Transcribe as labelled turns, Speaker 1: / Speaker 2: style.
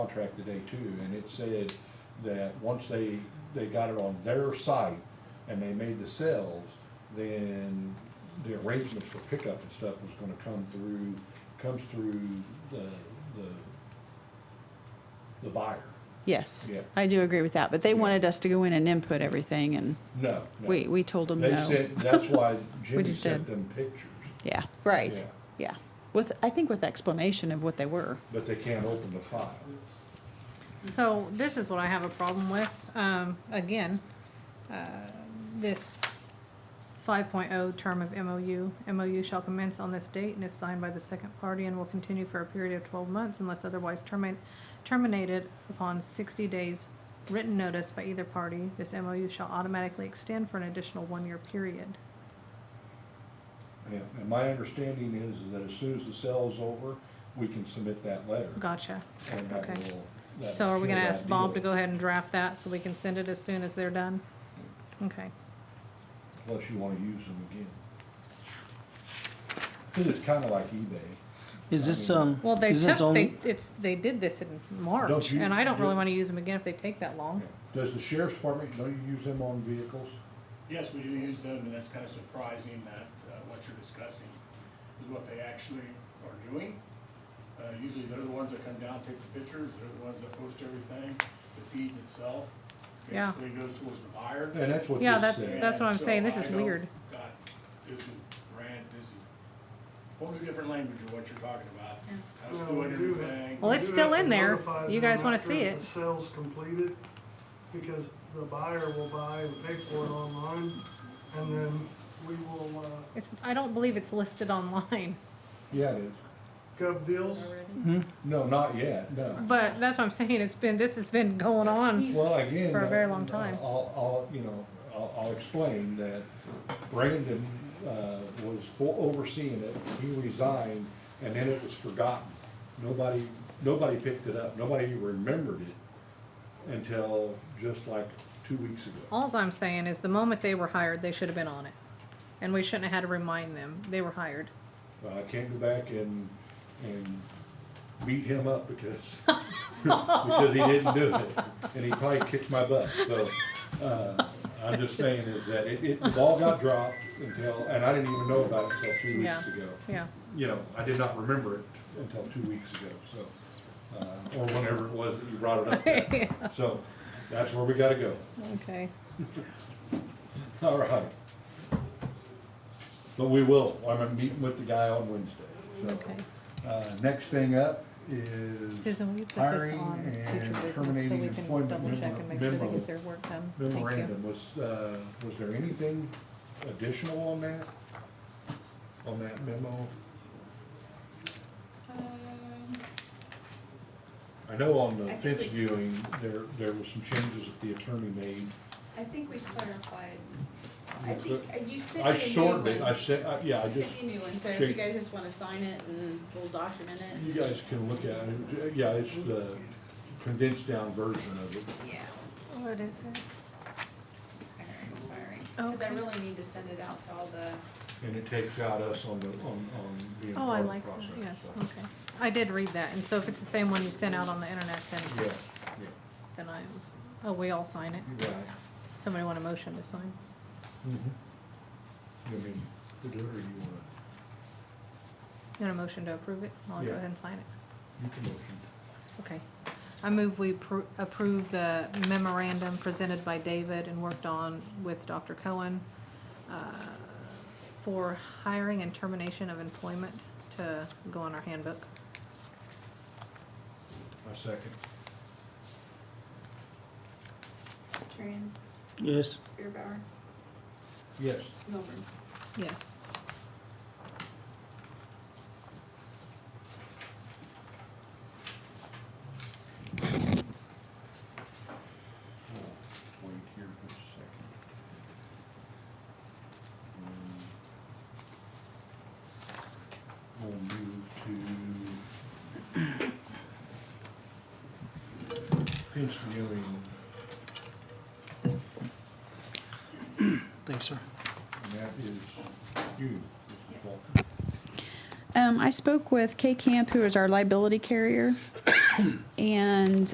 Speaker 1: contract today too, and it said that once they, they got it on their site and they made the sales, then the arrangements for pickup and stuff was gonna come through, comes through the, the, the buyer.
Speaker 2: Yes,
Speaker 1: Yeah.
Speaker 2: I do agree with that, but they
Speaker 1: Yeah.
Speaker 2: wanted us to go in and input everything, and
Speaker 1: No, no.
Speaker 2: we, we told them
Speaker 1: They
Speaker 2: no.
Speaker 1: sent, that's why Jimmy
Speaker 2: just
Speaker 1: sent
Speaker 2: did.
Speaker 1: them pictures,
Speaker 2: Yeah, right,
Speaker 1: Yeah.
Speaker 2: yeah. With, I think with explanation of what they were.
Speaker 1: but they can't open the file.
Speaker 3: So this is what I have a problem with, um, again, uh, this five oh term of MOU. MOU shall commence on this date and is signed by the second party and will continue for a period of twelve months unless otherwise terminate, terminated upon sixty days written notice by either party. This MOU shall automatically extend for an additional one-year period.
Speaker 1: Yeah, and my understanding is that as soon as the sale's over, we can submit that letter.
Speaker 3: Gotcha.
Speaker 1: And that
Speaker 3: Okay.
Speaker 1: will- that
Speaker 3: So are we
Speaker 1: will
Speaker 3: gonna
Speaker 1: seal
Speaker 3: ask
Speaker 1: that
Speaker 3: Bob to
Speaker 1: deal.
Speaker 3: go ahead and draft that so we can send it as soon as they're done? Okay.
Speaker 1: Unless you wanna use them again. Cause it's kinda like eBay.
Speaker 4: Is this, um,
Speaker 3: Well, they
Speaker 4: is this
Speaker 3: took, they,
Speaker 4: only,
Speaker 3: it's, they did this in
Speaker 1: Don't
Speaker 3: March,
Speaker 1: you-
Speaker 3: and I don't really
Speaker 1: you-
Speaker 3: wanna use them again if they take that long.
Speaker 1: Does the sheriff's department, don't you use them on vehicles?
Speaker 5: Yes, we do use them, and that's kind of surprising that uh, what you're discussing is what they actually are doing. Uh, Usually they're the ones that come down, take the pictures, they're the ones that post everything, the feeds itself
Speaker 3: Yeah.
Speaker 5: basically goes towards the buyer.
Speaker 1: And that's what
Speaker 3: Yeah,
Speaker 1: this
Speaker 3: that's-
Speaker 1: said.
Speaker 3: that's what I'm
Speaker 5: And so
Speaker 3: saying, this
Speaker 5: I
Speaker 3: is
Speaker 5: know,
Speaker 3: weird.
Speaker 5: God, this is brand, this is whole new different language of what you're talking about. How it's
Speaker 6: Well,
Speaker 5: doing
Speaker 6: we do have-
Speaker 5: everything.
Speaker 3: Well, it's
Speaker 6: You
Speaker 3: still
Speaker 6: have to
Speaker 3: in there.
Speaker 6: notify
Speaker 3: You
Speaker 6: them
Speaker 3: guys wanna
Speaker 6: after
Speaker 3: see it.
Speaker 6: The sale's completed, because the buyer will buy and pay for it online, and then we will, uh,
Speaker 3: It's, I don't believe it's listed online,
Speaker 1: Yeah, it is.
Speaker 6: Gov Deals,
Speaker 1: No, not yet, no.
Speaker 3: but that's what I'm saying, it's been, this has been going on.
Speaker 1: Well, again.
Speaker 3: For a very long
Speaker 1: uh,
Speaker 3: time.
Speaker 1: I'll, I'll, you know, I'll, I'll explain that Brandon, uh, was fo- overseeing it, he resigned, and then it was forgotten. Nobody, nobody picked it up, nobody remembered it until just like two weeks ago.
Speaker 3: Alls I'm saying is the moment they were hired, they should have been on it, and we shouldn't have had to remind them, they were hired.
Speaker 1: Uh, I can't go back and, and beat him up because, because he didn't do it. And he probably kicked my butt, so, uh, I'm just saying is that it, it, the ball got dropped until, and I didn't even know about it until two
Speaker 3: Yeah.
Speaker 1: weeks ago.
Speaker 3: Yeah,
Speaker 1: You know, I did not remember it until two weeks ago, so, uh, or whenever it was that you brought it up then. So, that's where we gotta go.
Speaker 3: okay,
Speaker 1: All right. But we will, I'm meeting with the guy on Wednesday,
Speaker 3: okay.
Speaker 1: so. Uh, next thing up is
Speaker 3: Susan, will you put this
Speaker 1: Hiring
Speaker 3: on future
Speaker 1: and
Speaker 3: business so
Speaker 1: terminating
Speaker 3: we can
Speaker 1: employment
Speaker 3: double check
Speaker 1: memo-
Speaker 3: and make sure they
Speaker 1: memo-
Speaker 3: get their work done? Thank you.
Speaker 1: memorandum, was, uh, was there anything additional on that? On that memo?
Speaker 7: Um,
Speaker 1: I know on the
Speaker 7: I think
Speaker 1: fence
Speaker 7: we-
Speaker 1: viewing, there, there were some changes that the attorney made.
Speaker 7: I think we clarified, I
Speaker 1: Yes,
Speaker 7: think, uh, you sent
Speaker 1: I
Speaker 7: me a new
Speaker 1: shortened it, I
Speaker 7: one.
Speaker 1: said, I- yeah, I
Speaker 7: You
Speaker 1: just.
Speaker 7: sent me a new one, so if
Speaker 1: changed- Mm-hmm.
Speaker 7: you guys just wanna sign it and we'll document
Speaker 1: You
Speaker 7: it.
Speaker 1: guys can look at it, yeah, it's the condensed down version of it.
Speaker 7: Yeah.
Speaker 3: What is it? Oh,
Speaker 7: hiring and firing. Cause I
Speaker 3: Okay.
Speaker 7: really need to send it out to all the,
Speaker 1: And it takes out us on the, on, on being
Speaker 3: Oh,
Speaker 1: part
Speaker 3: I
Speaker 1: of the
Speaker 3: like that,
Speaker 1: process.
Speaker 3: yes,
Speaker 1: so.
Speaker 3: okay. I did read that, and so if it's the same one you sent out on the internet,
Speaker 1: Yeah,
Speaker 3: then, then I, oh, we all sign it.
Speaker 1: yeah, right.
Speaker 3: Somebody want a motion to sign?
Speaker 1: Mm-hmm. I mean, to do it or you wanna,
Speaker 3: You want a motion to approve it? I'll go
Speaker 1: Yeah.
Speaker 3: ahead and sign it.
Speaker 1: you can motion.
Speaker 3: Okay. I move we appro- approve the memorandum presented by David and worked on with Dr. Cohen uh, for hiring and termination of employment to go on our handbook.
Speaker 1: A second.
Speaker 7: Tran,
Speaker 4: yes,
Speaker 7: Beerbauer,
Speaker 1: Yes.
Speaker 7: Milburn.
Speaker 3: Yes.
Speaker 1: Uh, Wait here just a second. Um, We'll move to fence viewing,
Speaker 4: thanks, sir.
Speaker 1: and that is you, Mrs. Walker.
Speaker 2: Um, I spoke with Kay Camp, who is our liability carrier, And